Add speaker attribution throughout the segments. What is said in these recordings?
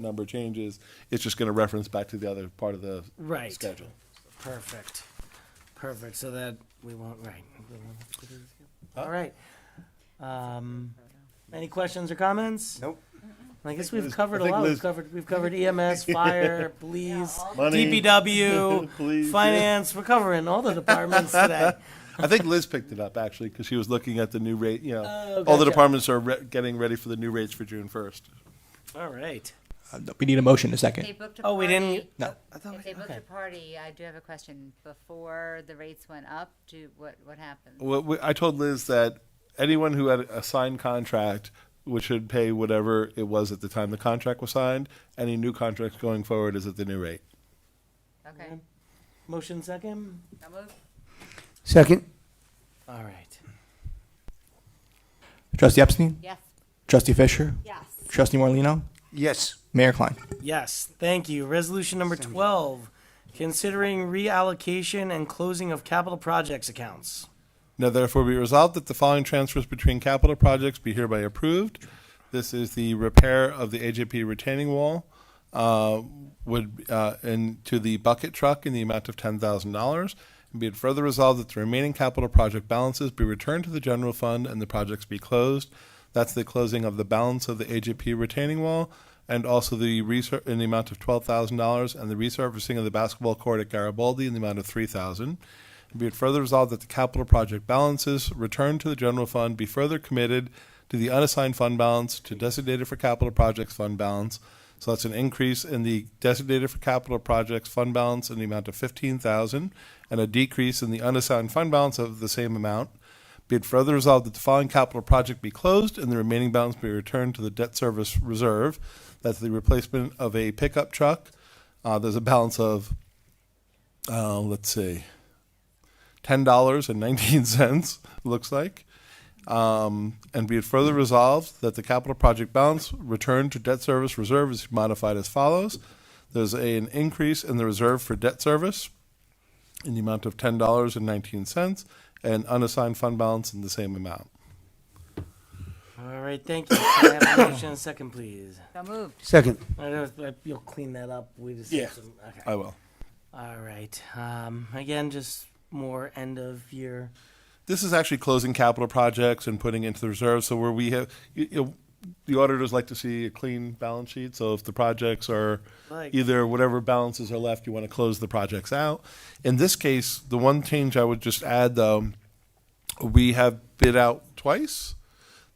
Speaker 1: number changes, it's just gonna reference back to the other part of the
Speaker 2: Right.
Speaker 1: schedule.
Speaker 2: Perfect. Perfect. So that we won't, right. we won't have to do this again.
Speaker 1: Oh.
Speaker 2: All right. Um, any questions or comments?
Speaker 1: Nope.
Speaker 2: I guess
Speaker 1: Liz-
Speaker 2: we've
Speaker 1: I
Speaker 2: covered a
Speaker 1: think
Speaker 2: lot. We've
Speaker 1: Liz-
Speaker 2: covered, we've covered EMS, fire, police,
Speaker 1: Money. Police,
Speaker 2: DPW,
Speaker 1: yeah.
Speaker 2: finance. We're covering all the departments today.
Speaker 1: I think Liz picked it up actually, because she was looking at the new rate, you know,
Speaker 2: Oh,
Speaker 1: all the
Speaker 2: gotcha.
Speaker 1: departments are re- getting ready for the new rates for June first.
Speaker 2: All right.
Speaker 3: Uh, We need a motion in a
Speaker 4: They
Speaker 3: second.
Speaker 4: booked a
Speaker 2: Oh, we didn't.
Speaker 4: party-
Speaker 3: No.
Speaker 4: If they booked a party, I do have a question. Before the rates went up, do, what, what happened?
Speaker 1: Well, we- I told Liz that anyone who had a signed contract, which should pay whatever it was at the time the contract was signed, any new contracts going forward is at the new rate.
Speaker 4: Okay,
Speaker 2: Motion second.
Speaker 4: I'll move.
Speaker 5: Second?
Speaker 2: All right.
Speaker 3: Trustee Epstein?
Speaker 4: Yes.
Speaker 3: Trustee Fisher?
Speaker 4: Yes.
Speaker 3: Trustee Morlino?
Speaker 5: Yes.
Speaker 3: Mayor Klein?
Speaker 2: Yes, thank you. Resolution number 12, considering reallocation and closing of capital projects accounts.
Speaker 1: Now therefore be resolved that the following transfers between capital projects be hereby approved. This is the repair of the AJP retaining wall, uh, would, uh, and to the bucket truck in the amount of ten thousand dollars. And be it further resolved that the remaining capital project balances be returned to the general fund and the projects be closed. That's the closing of the balance of the AJP retaining wall and also the resur- in the amount of twelve thousand dollars and the resurfacing of the basketball court at Garibaldi in the amount of three thousand. dollars and Be it further resolved that the capital project balances returned to the general fund be further committed to the unassigned fund balance to designated for capital projects fund balance. So that's an increase in the designated for capital projects fund balance in the amount of fifteen thousand and a decrease in the unassigned fund balance of the same amount. Be it further resolved that the following capital project be closed and the remaining balance be returned to the debt service reserve. That's the replacement of a pickup truck. Uh, there's a balance of, uh, let's see, ten dollars and nineteen cents looks like. Um, and be it further resolved that the capital project balance returned to debt service reserve is modified as follows. There's a, an increase in the reserve for debt service in the amount of ten dollars and nineteen cents, and unassigned fund balance in the same amount.
Speaker 2: All right, thank you. Can I have a motion and second, please?
Speaker 4: So moved.
Speaker 5: Second?
Speaker 2: I don't know if you'll clean that up. We just
Speaker 1: Yeah.
Speaker 2: okay.
Speaker 1: I will.
Speaker 2: All right. Um, again, just more end of year.
Speaker 1: This is actually closing capital projects and putting into the reserve. So where we have, you, you, the auditors like to see a clean balance sheet. So if the projects are
Speaker 2: Like-
Speaker 1: either whatever balances are left, you want to close the projects out. In this case, the one change I would just add though, we have bid out twice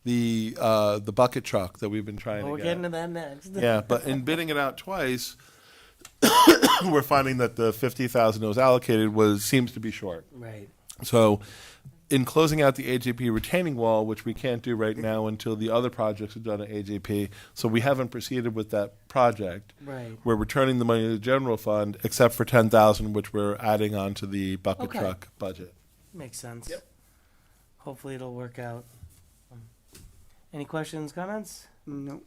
Speaker 1: the uh, the bucket truck that we've been trying
Speaker 2: Well,
Speaker 1: to
Speaker 2: we're
Speaker 1: get.
Speaker 2: getting to that next.
Speaker 1: yeah, but in bidding it out twice, we're finding that the fifty thousand that was allocated was seems to be short.
Speaker 2: Right.
Speaker 1: So, in closing out the AJP retaining wall, which we can't do right now until the other projects are done at AJP, so we haven't proceeded with that project.
Speaker 2: Right.
Speaker 1: We're returning the money to the general fund, except for ten thousand, which we're adding on to the bucket
Speaker 2: Okay.
Speaker 1: truck budget.
Speaker 2: Makes sense. Hopefully it'll work out. Um, Any questions, comments?
Speaker 5: No.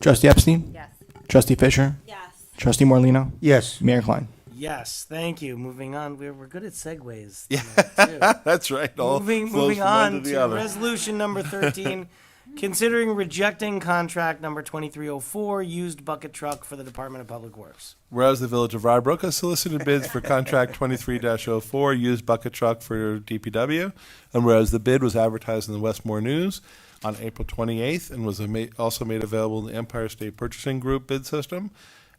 Speaker 3: Trustee Epstein?
Speaker 4: Yes.
Speaker 3: Trustee Fisher?
Speaker 4: Yes.
Speaker 3: Trustee Morlino?
Speaker 5: Yes.
Speaker 3: Mayor Klein?
Speaker 2: Yes, thank you. Moving on, we're, we're good at segues.
Speaker 1: Yeah.
Speaker 2: tonight, too.
Speaker 1: That's right. all
Speaker 2: Moving,
Speaker 1: flows
Speaker 2: moving
Speaker 1: from one
Speaker 2: on
Speaker 1: the
Speaker 2: to
Speaker 1: other.
Speaker 2: resolution number thirteen, considering rejecting contract number twenty-three oh four, used bucket truck for the Department of Public Works.
Speaker 1: Whereas the Village of Rybrook has solicited bids for contract 23-04 used bucket truck for DPW, and whereas the bid was advertised in the Westmore News on April 28th and was ama- also made available in the Empire State Purchasing Group bid system,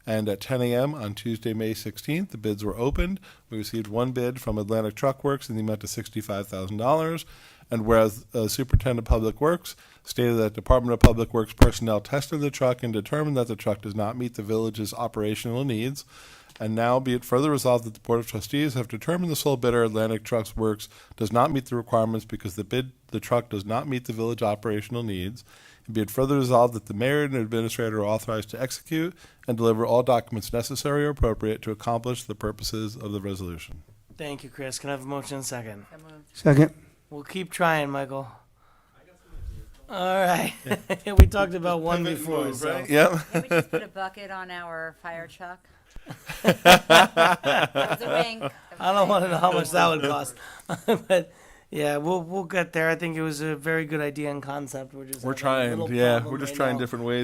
Speaker 1: and at 10 a.m. on Tuesday, May 16th, the bids were opened. We received one bid from Atlantic Truck Works in the amount of $65,000. And whereas uh, Superintendent of Public Works stated that Department of Public Works personnel tested the truck and determined that the truck does not meet the village's operational needs. And now be it further resolved that the Board of Trustees have determined the sole bidder Atlantic Trucks Works does not meet the requirements because the bid, the truck does not meet the village operational needs. And be it further resolved that the mayor and administrator are authorized to execute and deliver all documents necessary or appropriate to accomplish the purposes of the resolution.
Speaker 2: Thank you, Chris. Can I have a motion and second?
Speaker 4: So moved.
Speaker 5: Second?
Speaker 2: We'll keep trying, Michael. All right, we talked about one before, so.
Speaker 1: Yep.
Speaker 4: Can we just put a bucket on our fire truck? That was a wink.
Speaker 2: I don't want to know how much that would cost, but yeah, we'll, we'll get there. I think it was a very good idea and concept. We're just.
Speaker 1: We're
Speaker 2: having a
Speaker 1: trying,
Speaker 2: little
Speaker 1: yeah.
Speaker 2: problem
Speaker 1: We're just
Speaker 2: right
Speaker 1: trying
Speaker 2: now.
Speaker 1: different ways.